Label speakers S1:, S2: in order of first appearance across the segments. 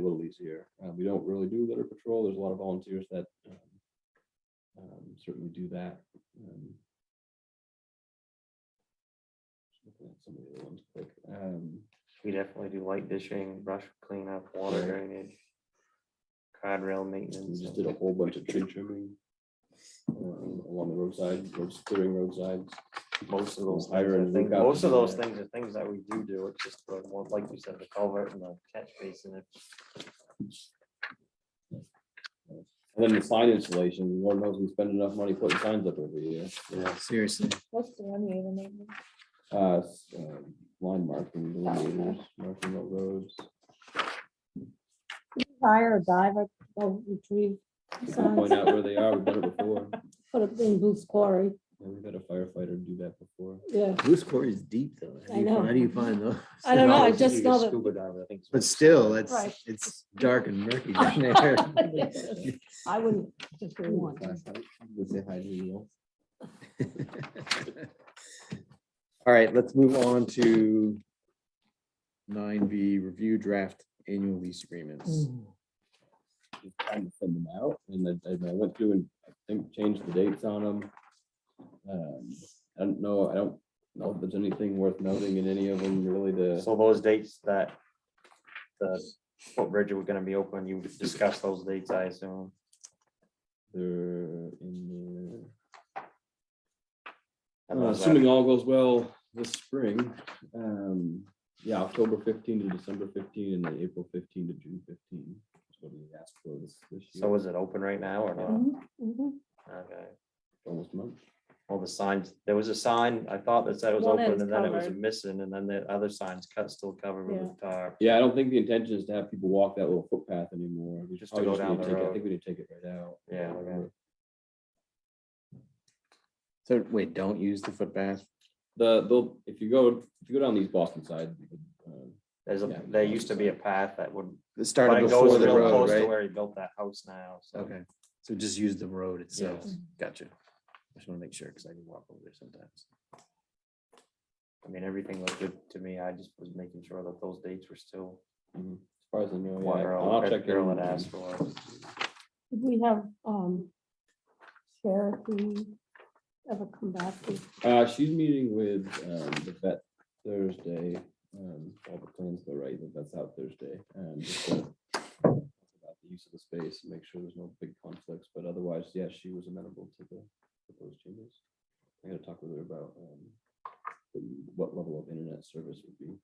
S1: duties here. Uh, we don't really do litter patrol. There's a lot of volunteers that um, um, certainly do that. Um, just looking at Some of the other ones quick. Um,
S2: We definitely do light dishing, brush cleanup, water
S1: Right.
S2: drainage. Crowd rail maintenance.
S1: We just did a whole bunch of tree trimming um, along the roadside, roads, clearing roadsides.
S2: Most of those
S1: Hire and
S2: things, are things-
S1: look out
S2: most of
S1: for
S2: those
S1: that.
S2: things are things that we do do, it's just the one, like you said, the culvert and the catch basin. it-
S1: And then the sign installation, Lord knows we spend enough money putting signs up every year.
S3: Seriously,
S4: What's the one you even made? me?
S1: Uh, s- um, Line marking, delineators, marking what roads.
S4: Fire or diver, or retrieve.
S1: We can
S4: signs.
S1: Point out where they are. We've done it before.
S4: Put it in Booth's Quarry,
S1: And we've had a firefighter do that before.
S4: yeah.
S3: Goose Quarry is deep though. How
S4: I
S3: do you
S4: know.
S3: find- How do you find those?
S4: I don't know, I
S2: Obviously,
S4: just
S2: you
S4: know
S2: get
S4: that.
S2: Scuba diver, I think.
S3: But still, it's,
S4: Right.
S3: it's dark and murky down there.
S4: I wouldn't just really want to.
S1: Flashlight, would say hi to you.
S3: All right, let's move on to nine B, review draft annual lease agreements.
S4: Mm.
S1: Mm-hmm, Just trying to send them out, and then and I went through and I think changed the dates on them. Um, I don't know, I don't know if there's anything worth noting in any of them really to.
S2: So those dates that the footbridge were gonna be open, you discussed those dates, I assume.
S1: They're in
S2: I
S1: there.
S2: don't
S1: Uh,
S2: know, is that-
S1: Assuming all goes well this spring, um, yeah, October fifteen to December fifteen and then April fifteen to June fifteen. That's what we asked for this, this year,
S2: So is it open right now or not?
S4: Mhm, mhm.
S2: Okay.
S1: almost a month.
S2: Well, the signs, there was a sign, I thought that said it was
S4: One
S2: open
S4: is
S2: and then it was
S4: covered.
S2: missing and then the other signs cut, still covered
S4: Yeah.
S2: with tar.
S1: Yeah, I don't think the intention is to have people walk that little footpath anymore. We
S2: Just to
S1: probably
S2: go
S1: just need
S2: down the
S1: take it- I
S2: road.
S1: think we need to take it right out.
S2: Yeah, okay.
S1: Whatever.
S3: So wait, don't use the footpath.
S1: The, the, if you go, if you go down these Boston side, um,
S2: There's
S1: Yeah.
S2: a, there used to be a path that would,
S3: It
S2: but
S3: started
S2: it goes
S3: before the
S2: real
S3: road,
S2: close to
S3: right?
S2: where he built that house now, so.
S3: Okay, so just use the road itself.
S2: Yes.
S3: Gotcha. I just want to make sure because I can walk over there sometimes.
S2: I mean, everything looked good to me. I just was making sure that those dates were still
S1: mhm, as far as I
S3: Oh,
S1: know,
S2: what
S1: yeah, I'll
S2: Earl
S1: check.
S2: Earl had
S1: in.
S2: asked for.
S4: Did We have, um, Cherokee ever come back to
S1: Uh, she's meeting with, um, the vet Thursday, um, all the plans go right, the vet's out Thursday, and just to talk about the use of the space, and make sure there's no big conflicts, but otherwise, yes, she was amenable to the proposed changes. I gotta talk with her about, um, the- what level of internet service would be.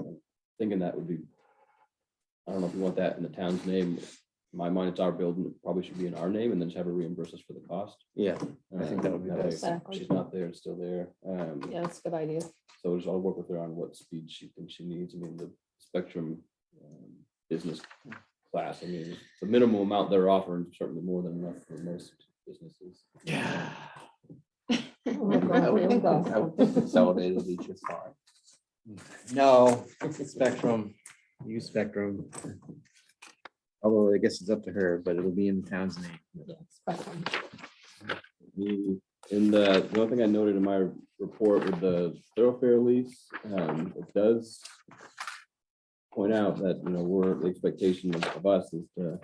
S1: I'm Thinking that would be, I don't know if you want that in the town's name, in my mind, it's our building, it probably should be in our name, and then just have her reimburse us for the cost.
S3: Yeah, I think that would be
S1: Um, way
S3: best.
S4: Exactly.
S1: She's not there, it's still there. Um,
S4: Yeah, that's a good idea.
S1: so we'll just all work with her on what speed she thinks she needs. I mean, the spectrum um, business class, I mean, the minimum amount they're offering is certainly more than enough for most businesses.
S3: Yeah.
S4: Oh my God, here we go.
S1: Consolidated each is fine.
S3: No, Spectrum, use Spectrum. Although I guess it's up to her, but it'll be in the town's name.
S4: Yeah, it's fine.
S1: The, in Mm-hmm. the, the only thing I noted in my report with the thoroughfare lease, um, it does point out that, you know, we're, the expectation of- of us is to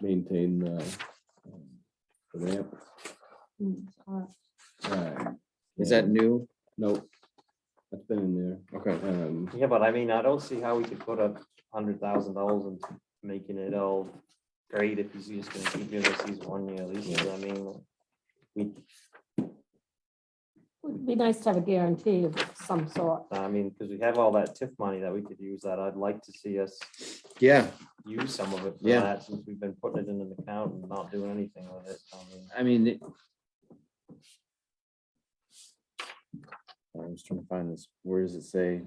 S1: maintain the um, the ramp.
S4: Mm, all right.
S1: uh,
S3: Is that
S1: and-
S3: new?
S1: Nope. That's been in
S3: Okay.
S1: there. Um,
S2: Yeah, but I mean, I don't see how we could put a hundred thousand dollars in making it all great if he's just gonna keep doing this, he's one year leases. I mean, we,
S4: Would be nice to have a guarantee of some sort.
S2: I mean, because we have all that TIF money that we could use that I'd like to see us
S3: Yeah,
S2: use some of it for
S3: Yeah.
S2: that since we've been putting it in an account and not doing anything with it. I mean,
S3: I mean. it- I was trying to find this. Where does it say?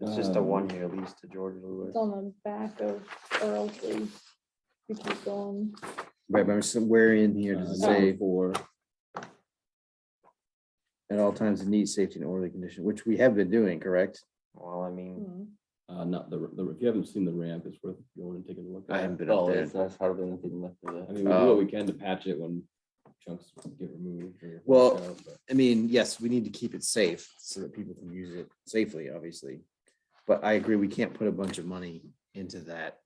S2: It's just a
S1: Um,
S2: one year lease to George Lewis.
S5: It's on the back of Earl's lease. We keep going.
S3: Right, but I'm somewhere in here
S1: uh,
S3: does it
S1: number
S3: say
S1: Four,
S3: at all times it needs safety and orderly condition, which we have been doing, correct?
S2: Well, I
S4: Hmm.
S2: mean,
S1: uh, not the, the, if you haven't seen the ramp, it's worth going and taking a look.
S3: I
S1: at.
S3: haven't been up there.
S6: There's hardly anything left of
S1: I
S6: it.
S1: mean, we do
S3: Oh.
S1: what we can to patch it when chunks get removed. or
S3: Well,
S1: washed out, but-
S3: I mean, yes, we need to keep it safe so that people can use it safely, obviously. But I agree, we can't put a bunch of money into that